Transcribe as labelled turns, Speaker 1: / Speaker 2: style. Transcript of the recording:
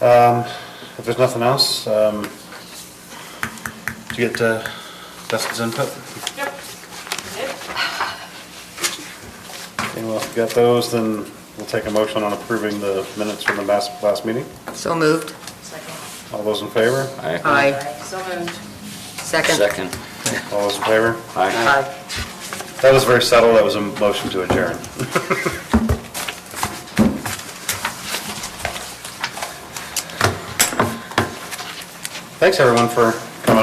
Speaker 1: Um, If there's nothing else, um, to get uh, Dustin's input,
Speaker 2: Yep. Yep.
Speaker 1: anyone else got those, then we'll take a motion on approving the minutes from the last, last meeting.
Speaker 3: So moved.
Speaker 2: Second.
Speaker 1: All those in favor?
Speaker 4: Aye.
Speaker 3: Aye.
Speaker 2: oh, So moved.
Speaker 3: Second.
Speaker 4: Second.
Speaker 1: All those in favor?
Speaker 4: Aye.
Speaker 3: Aye.
Speaker 1: That was very subtle, that was a motion to adjourn. Thanks, everyone, for